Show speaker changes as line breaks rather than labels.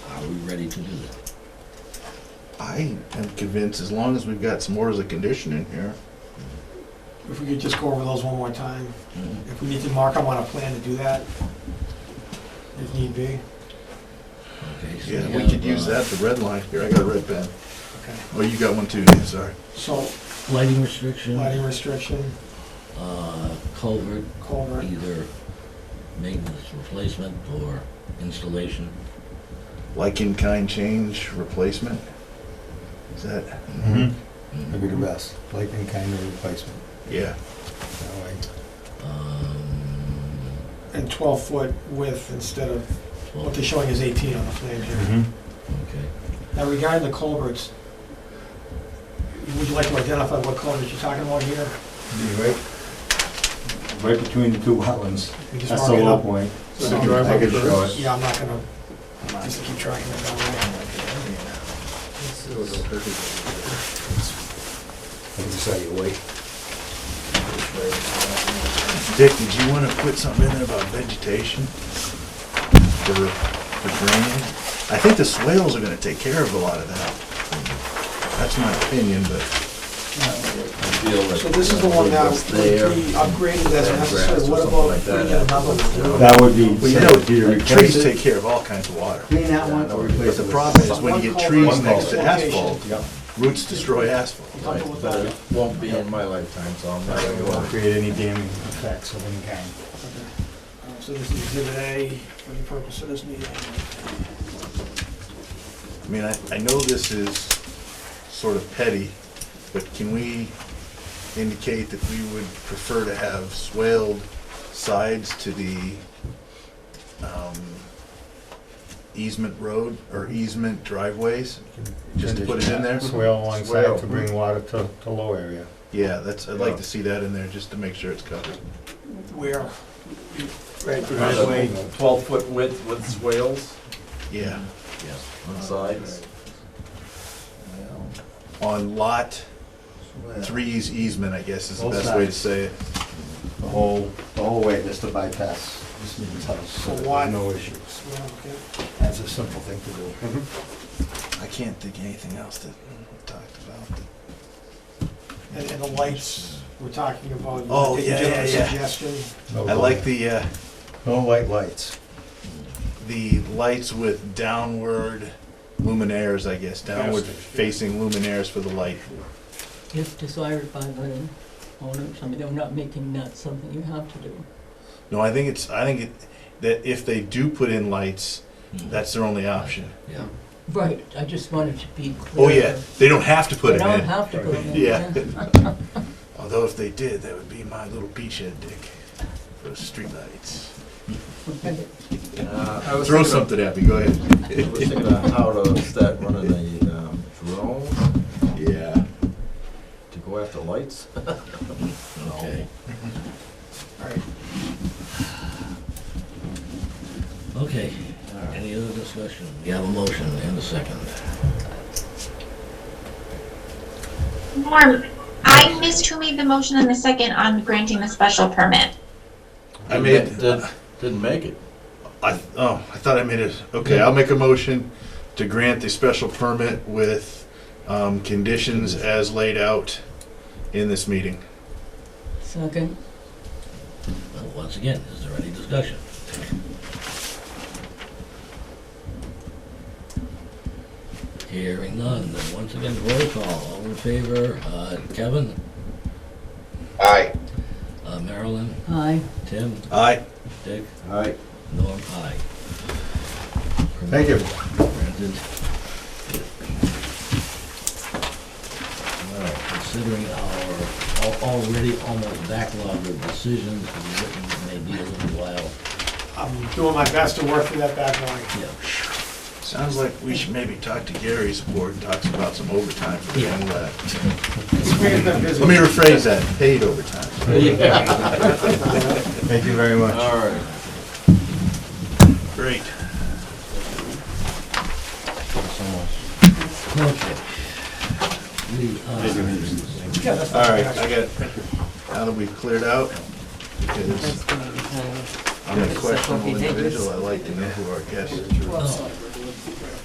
ready to do that.
I am convinced as long as we've got some orders of condition in here.
If we could just go over those one more time,
Mhm.
if we need to mark them on a plan to do that, if need be,
Okay, so
Yeah, we could
have,
use
uh,
that, the red line. Here, I got a red pen.
okay.
Oh, you got one too, Dan, sorry.
So
Lighting restriction,
lighting restriction,
uh, culvert,
culvert,
either maintenance replacement or installation.
Like in kind change replacement? Is that?
Mm-hmm.
Mhm.
Maybe the best, like in kind of replacement.
Yeah,
That way,
Um,
and 12-foot width instead of, what
twelve,
they're showing is 18 on the plan here.
Mm-hmm.
okay.
Now regarding the culverts, would you like to identify what culverts you're talking about here?
Be right, right between the two wetlands.
We just
That's
mark
the
it
low
up.
point.
So-
The driveway
I could show it.
Yeah, I'm not gonna, just keep tracking it down there.
I can show you wait.
Dick, did you want to put something in there about vegetation? For, for drainage? I think the swales are gonna take care of a lot of that. That's my opinion, but
So this is the one that we upgraded as necessary, what about bringing another one?
That would be,
well, you
so do you
know,
replace
trees
it?
take care of all kinds of water.
Clean that one or
But
replace it
the
with?
problem is when you get trees
One
next to
culvert.
asphalt,
Yep.
roots destroy asphalt.
You comfortable with that?
Won't be in my lifetime, so I'm not
It
gonna
won't
worry.
create any damning effects of any kind.
Um, So this is exhibit A for the purpose of this meeting.
I mean, I, I know this is sort of petty, but can we indicate that we would prefer to have swaled sides to the, um, easement road or easement driveways? Just to put it in there?
Swale along
Swale.
side to bring water to, to low area.
Yeah, that's, I'd like
Yeah.
to see that in there, just to make sure it's covered.
Where?
Right, driveway, twelve foot width with swales
Yeah,
on sides.
on lot three's easement, I guess is the
Both
best way to
sides.
say it.
The whole, the whole way, just to bypass this man's house. so
So
there's
why-
No issues.
Well, okay.
That's a simple thing to do.
Mm-hmm. I can't think of anything else that we talked about.
And, and the lights, we're talking about.
Oh,
I think
yeah,
you
yeah,
have a
yeah.
Suggestion.
Oh,
No
I like
light-
the, uh,
No white lights.
the lights with downward luminaires, I guess, downward
Yes.
facing luminaires for the light.
If desired by the owners, I mean, they're not making that something you have to do.
No, I think it's, I think it, that if they do put in lights,
Mhm.
that's their only option.
Yeah.
Right, I just wanted to be clear.
Oh, yeah, they don't have to put
They
it
don't
in.
have to put it in.
Yeah. Although if they did, that would be my little beachhead, Dick. Those streetlights.
Uh, I was
Throw
thinking of-
something at me, go ahead.
I was thinking of how to start running a um, drone
Yeah.
to go after lights.
Mm, Okay.
All right.
Okay, any other discussion? We have a motion and a second.
Norm, I missed who made the motion in the second on granting the special permit.
I made-
Didn't- Didn't make it.
I, oh, I thought I made it. Okay, I'll make a motion to grant the special permit with, um, conditions as laid out in this meeting.
Second,
Well, Once again, is there any discussion? Hearing none, then once again, roll call, all in favor, uh, Kevin,
Aye.
uh, Marilyn,
aye.
Tim,
Aye.
Dick,
Aye.
Norm, aye.
Thank you.
Granted. Well, considering our al- already almost backlogged of decisions, it may be a little while.
I'm doing my best to work through that backlog.
Yeah.
Sounds like we should maybe talk to Gary's board, and talks about some overtime for
Yeah.
young lad.
It's been busy.
Let me rephrase that, paid overtime.
Yeah,
Thank you very much.
all right.
Great.
Okay. We, uh,
Yeah, that's
All
not
right,
bad.
I got, it. now that we've cleared out, because
That's gonna be, uh,
I'm a
That's what we
questionable
did.
individual, I like to know who our guests are.
oh,